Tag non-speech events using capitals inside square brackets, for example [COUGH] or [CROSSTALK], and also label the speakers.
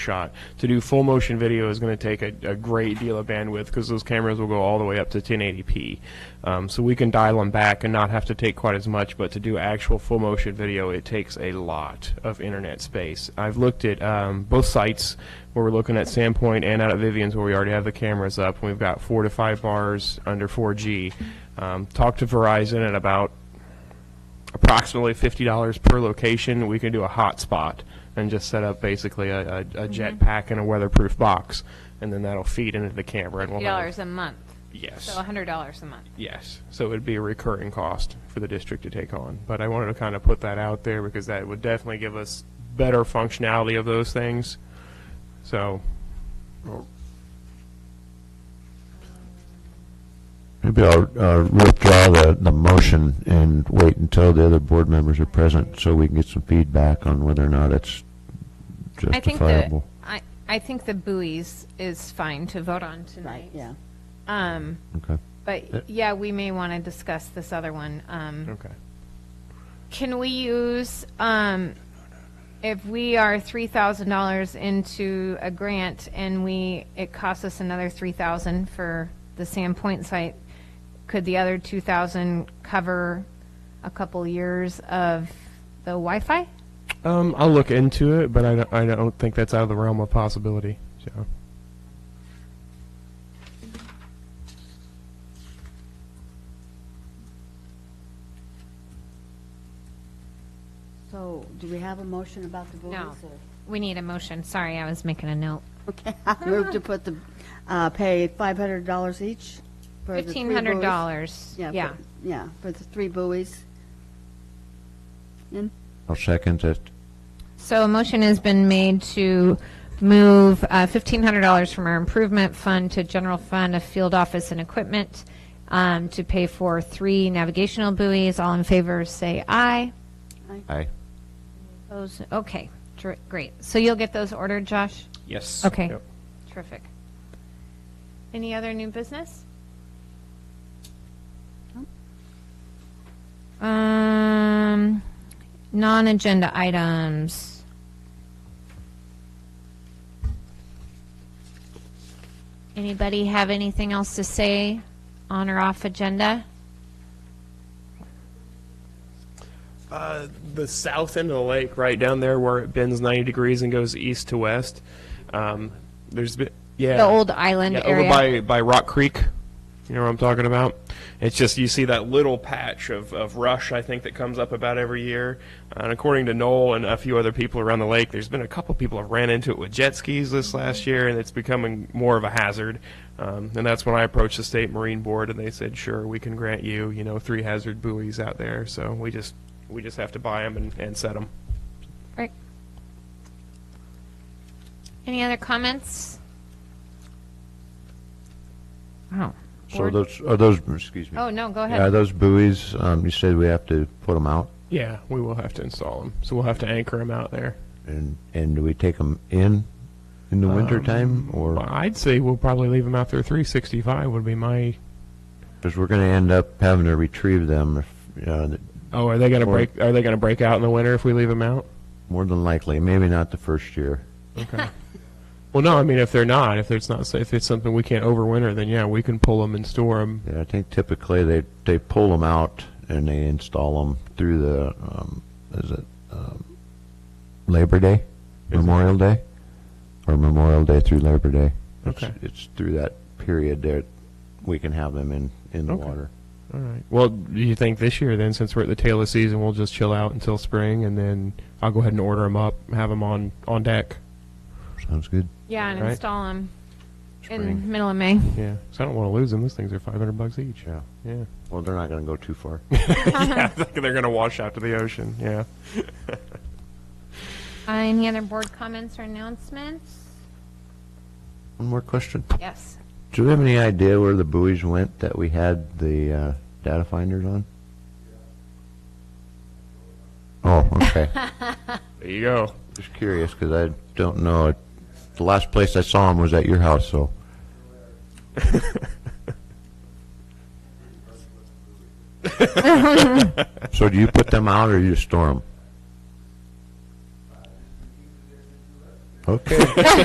Speaker 1: shot. To do full motion video is going to take a, a great deal of bandwidth because those cameras will go all the way up to 1080p. Um, so we can dial them back and not have to take quite as much, but to do actual full motion video, it takes a lot of internet space. I've looked at um, both sites where we're looking at Sandpoint and out at Vivian's where we already have the cameras up. and We've got four to five bars under 4G. Um, talked to Verizon at about approximately fifty dollars per location, we can do a hotspot and just set up basically a, a, a
Speaker 2: Mm-hmm.
Speaker 1: jet pack and a weatherproof box, and then that'll feed into the camera and we'll have.
Speaker 2: dollars a month, so
Speaker 1: Yes,
Speaker 2: hundred dollars a month.
Speaker 1: yes. So it'd be a recurring cost for the district to take on. But I wanted to kind of put that out there because that would definitely give us better functionality of those things. So,
Speaker 3: Maybe I'll uh, withdraw the, the motion and wait until the other board members are present so we can get some feedback on whether or not it's
Speaker 2: I think the,
Speaker 3: justifiable.
Speaker 2: I, I think the buoys is fine to vote on
Speaker 4: Right,
Speaker 2: tonight.
Speaker 4: yeah.
Speaker 2: Um,
Speaker 3: Okay.
Speaker 2: but yeah, we may want to discuss this other one. Um,
Speaker 1: okay.
Speaker 2: can we use, um, if we are three thousand dollars into a grant and we, it costs us another three thousand for the Sandpoint site, could the other two thousand cover a couple years of the Wi-Fi?
Speaker 1: Um, I'll look into it, but I don't, I don't think that's out of the realm of possibility, so.
Speaker 4: So do we have a motion about the buoys?
Speaker 2: No.
Speaker 4: or-
Speaker 2: We need a motion. Sorry, I was making a note.
Speaker 4: Okay, [LAUGHS] I move to
Speaker 2: [LAUGHS]
Speaker 4: put the, uh, pay $500 each for the three
Speaker 2: Fifteen
Speaker 4: buoys.
Speaker 2: hundred dollars.
Speaker 4: for-
Speaker 2: Yeah.
Speaker 4: Yeah, for the three buoys.
Speaker 3: I'll second it.
Speaker 2: So a motion has been made to move uh, fifteen hundred dollars from our improvement fund to general fund of field office and equipment um, to pay for three navigational buoys. All in favor, say aye.
Speaker 3: Aye.
Speaker 2: Those, okay, Dr- great. So you'll get those ordered, Josh?
Speaker 1: Yes.
Speaker 2: Okay, terrific. Any other new business? Um, non-agenda items. Anybody have anything else to say on or off agenda?
Speaker 1: Uh, the south end of the lake, right down there where it bends 90 degrees and goes east to west. Um, there's been, yeah.
Speaker 2: The old island
Speaker 1: yeah,
Speaker 2: area?
Speaker 1: Over by, by Rock Creek. You know what I'm talking about? It's just you see that little patch of, of rush, I think, that comes up about every year. And according to Noel and a few other people around the lake, there's been a couple people have ran into it with jet skis this last year, and it's becoming more of a hazard. Um, and that's when I approached the state marine board, and they said, "Sure, we can grant you, you know, three hazard buoys out there. So we just we just have to buy them and, and set them."
Speaker 2: Right. Any other comments? Wow.
Speaker 3: So
Speaker 2: Board-
Speaker 3: those, are those, excuse me.
Speaker 2: Oh, no, go
Speaker 3: Yeah,
Speaker 2: ahead.
Speaker 3: those buoys, um, you said we have to put them out
Speaker 1: Yeah, we will have to install them, so we'll have to anchor them out there.
Speaker 3: and, and do we take them in, in the wintertime?
Speaker 1: Well,
Speaker 3: Or,
Speaker 1: I'd say we'll probably leave them out there. 365 would be my.
Speaker 3: because we're going to end up having to retrieve them if, uh, you know, that-
Speaker 1: Oh, are they gonna
Speaker 3: Or-
Speaker 1: break? Are they gonna break out in the winter if we leave them out?
Speaker 3: more than likely, maybe not the first year.
Speaker 1: Well, no. I mean, if they're not, if it's not, if it's something we can't overwinter, then yeah, we can pull them and store them.
Speaker 3: Yeah, I think typically they, they pull them out and they install them through the, um, is it, um, Labor Day? Memorial Day? Or Memorial Day through Labor Day? It's-
Speaker 1: Okay.
Speaker 3: It's through that period there, we can have them in, in the
Speaker 1: Okay.
Speaker 3: water.
Speaker 1: All right. Well, do you think this year then, since we're at the tail of season, we'll just chill out until spring, and then I'll go ahead and order them up, have them on on deck.
Speaker 3: Sounds good.
Speaker 2: Yeah, and
Speaker 1: Right.
Speaker 2: install them in the
Speaker 3: Spring.
Speaker 2: middle of May.
Speaker 1: Yeah. Because I don't want to lose them. Those things are 500 bucks each.
Speaker 3: Yeah.
Speaker 1: Yeah.
Speaker 3: Well, they're not gonna go too far.
Speaker 1: [LAUGHS] yeah. They're gonna wash out to the ocean. Yeah.
Speaker 2: Uh, Any other board comments or announcements?
Speaker 3: [LAUGHS] One more question.
Speaker 2: Yes.
Speaker 3: Do we have any idea where the buoys went that we had the, uh, data finders on? Oh, [LAUGHS] okay.
Speaker 1: There you go.
Speaker 3: Just curious, because I don't know. The last place I saw him was at your house, so. So do you put them out or you store them? Okay.